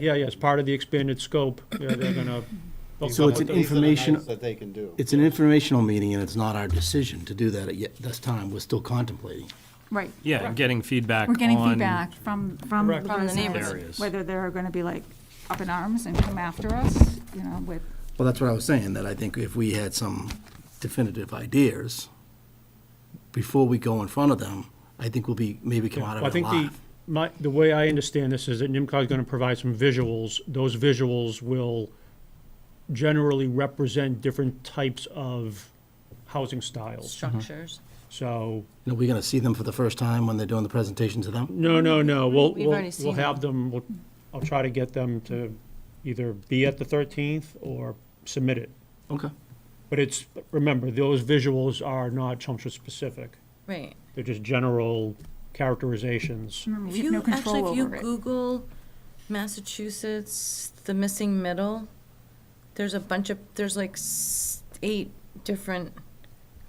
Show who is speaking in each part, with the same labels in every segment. Speaker 1: Yeah, yeah, it's part of the expanded scope. Yeah, they're gonna. they'll
Speaker 2: So
Speaker 1: come
Speaker 3: These
Speaker 1: with it.
Speaker 2: it's an
Speaker 3: are the
Speaker 2: information-
Speaker 3: nights That they can do.
Speaker 2: It's an informational meeting, and it's not our decision to do that at yet this time. We're still contemplating.
Speaker 4: Right.
Speaker 5: Yeah, and getting feedback
Speaker 4: We're getting
Speaker 5: on-
Speaker 4: feedback from, from
Speaker 1: Correct.
Speaker 4: the
Speaker 1: From
Speaker 5: the neighbors.
Speaker 4: residents,
Speaker 5: Areas.
Speaker 4: whether they're going to be like up in arms and come after us, you know, with,
Speaker 2: Well, that's what I was saying, that I think if we had some definitive ideas before we go in front of them, I think we'll be, maybe come out
Speaker 1: I
Speaker 2: of it
Speaker 1: think the,
Speaker 2: alive.
Speaker 1: my, the way I understand this is that NIMCOG is gonna provide some visuals. Those visuals will generally represent different types of housing styles.
Speaker 4: Mm-hmm.
Speaker 6: structures.
Speaker 1: So,
Speaker 2: You know, we're gonna see them for the first time when they're doing the presentation to them.
Speaker 1: no, no, no, we'll,
Speaker 6: We've
Speaker 1: we'll,
Speaker 6: already seen
Speaker 1: we'll have them, we'll, I'll try to get them to either be at the thirteenth or submit it.
Speaker 2: Okay.
Speaker 1: But it's, remember, those visuals are not Chelmsford specific.
Speaker 6: Right.
Speaker 1: They're just general characterizations.
Speaker 4: remember,
Speaker 6: If
Speaker 4: we Mm-hmm. have
Speaker 6: you,
Speaker 4: no
Speaker 6: actually,
Speaker 4: control
Speaker 6: if you
Speaker 4: over it.
Speaker 6: Google Massachusetts, the missing middle, there's a bunch of, there's like s- eight different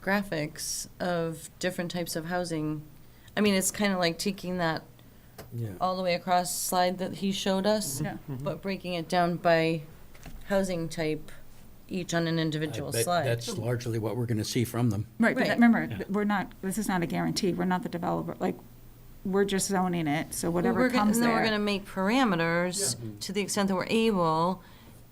Speaker 6: graphics of different types of housing. I mean, it's kind of like taking that all the way across slide that he showed us,
Speaker 4: Mm-hmm. Yeah.
Speaker 6: but breaking it down by housing type, each on an individual
Speaker 7: But
Speaker 6: slide.
Speaker 7: That's largely what we're going to see from them.
Speaker 4: Right, but
Speaker 6: Right.
Speaker 4: that- remember, th- we're not, this is not a guarantee, we're not the developer, like, we're just zoning it, so
Speaker 6: Well,
Speaker 4: whatever
Speaker 6: we're gonna-
Speaker 4: comes
Speaker 6: and then We're
Speaker 4: there.
Speaker 6: gonna make parameters
Speaker 2: Mm-hmm.
Speaker 6: to the extent that we're able,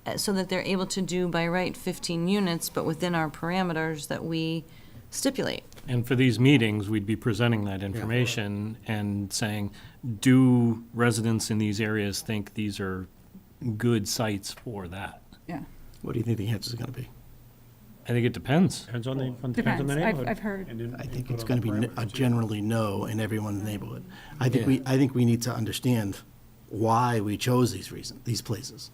Speaker 6: uh, so that they're able to do by right fifteen units, but within our parameters that we stipulate.
Speaker 5: And for these meetings, we'd be presenting that information and saying, do residents in these areas think these are good sites for that?
Speaker 4: Yeah,
Speaker 2: What do you think the answer's gonna be?
Speaker 5: I think it depends.
Speaker 1: Depends on the, depends on
Speaker 4: depends,
Speaker 1: the
Speaker 4: I've,
Speaker 1: neighborhood.
Speaker 4: I've heard,
Speaker 2: I think it's gonna be n- a generally no in everyone's neighborhood. I think we, I think we need to understand why we chose these reasons, these places.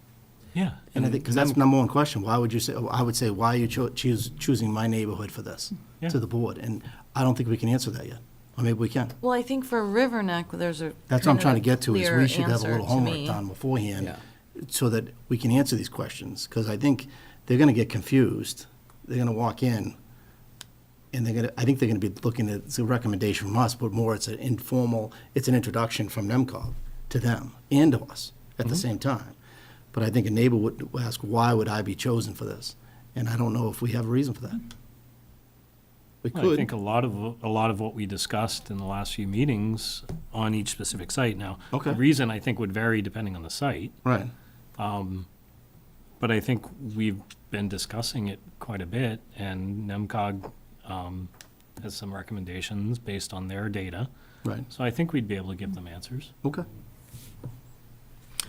Speaker 5: Yeah.
Speaker 2: And I think, because that's the number one question, why would you say, I would say, why are you cho- choose, choosing my neighborhood for this,
Speaker 5: Yeah.
Speaker 2: to the board? And I don't think we can answer that yet, or maybe we can.
Speaker 6: Well, I think for River Neck, there's a.
Speaker 2: That's what I'm
Speaker 6: kind of
Speaker 2: trying to get to, is
Speaker 6: clear
Speaker 2: we should have a
Speaker 6: answer
Speaker 2: little
Speaker 6: to
Speaker 2: homework
Speaker 6: me.
Speaker 2: done beforehand,
Speaker 7: Yeah.
Speaker 2: so that we can answer these questions, because I think they're gonna get confused, they're gonna walk in, and they're gonna, I think they're gonna be looking at, it's a recommendation from us, but more it's an informal, it's an introduction from NEMCOG to them and to us
Speaker 5: Mm-hmm.
Speaker 2: at the same time. But I think a neighbor would ask, why would I be chosen for this? And I don't know if we have a reason for that. We
Speaker 5: I
Speaker 2: could,
Speaker 5: think a lot of, a lot of what we discussed in the last few meetings on each specific site now.
Speaker 2: Okay.
Speaker 5: The reason I think would vary depending on the site,
Speaker 2: right,
Speaker 5: but I think we've been discussing it quite a bit, and NEMCOG um, has some recommendations based on their data.
Speaker 2: right,
Speaker 5: So I think we'd be able to give them answers.
Speaker 2: okay.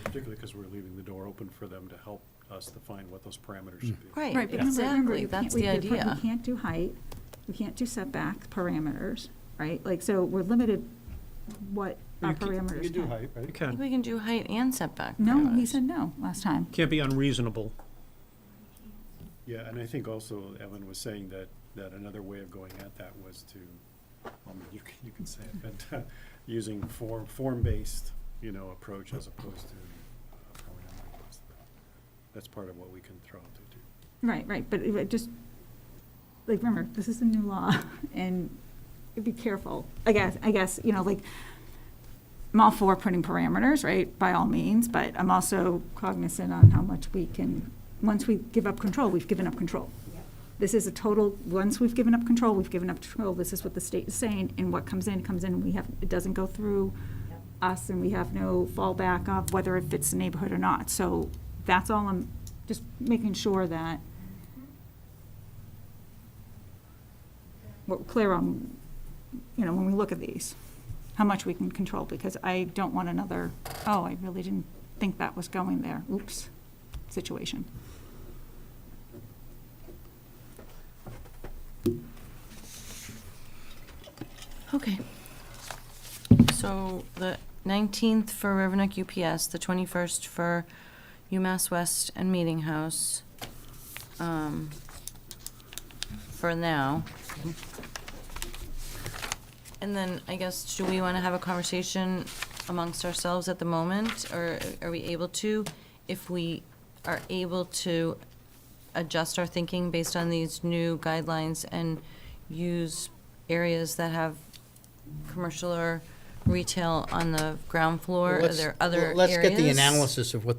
Speaker 8: Particularly because we're leaving the door open for them to help us define what those parameters should be.
Speaker 4: right,
Speaker 6: Right,
Speaker 4: but remember- remember,
Speaker 6: exactly,
Speaker 4: you can't,
Speaker 6: that's
Speaker 4: we
Speaker 6: the
Speaker 4: we
Speaker 6: idea.
Speaker 4: can't do height, we can't do setback parameters, right? Like, so we're limited what our parameters.
Speaker 8: You do
Speaker 4: can-
Speaker 8: height, right?
Speaker 6: I think We can do height and setback.
Speaker 4: No, he
Speaker 6: parameters.
Speaker 4: said no last time.
Speaker 1: Can't be unreasonable.
Speaker 8: Yeah, and I think also Evan was saying that, that another way of going at that was to, I mean, you can, you can say it, but uh, using form, form-based, you know, approach as opposed to uh, parameter-based. That's part of what we can throw out there too.
Speaker 4: Right, right, but it- it just, like, remember, this is a new law, and be careful, I guess, I guess, you know, like, I'm all for putting parameters, right, by all means, but I'm also cognizant on how much we can, once we give up control, we've given up control. This is a total, once we've given up control, we've given up control, this is what the state is saying, and what comes in, comes in, we have, it doesn't go through us, and we have no fallback of whether it fits the neighborhood or not, so that's all I'm, just making sure that we're clear on, you know, when we look at these, how much we can control, because I don't want another, oh, I really didn't think that was going there, oops, situation.
Speaker 6: Okay. So the 19th for River Neck UPS, the 21st for UMass West and Meeting House, um, for now. And then I guess, do we want to have a conversation amongst ourselves at the moment? Or are we able to? If we are able to adjust our thinking based on these new guidelines and use areas that have commercial or retail on the ground floor? Are
Speaker 7: Let's-
Speaker 6: there other areas?
Speaker 7: Let's get the analysis of what the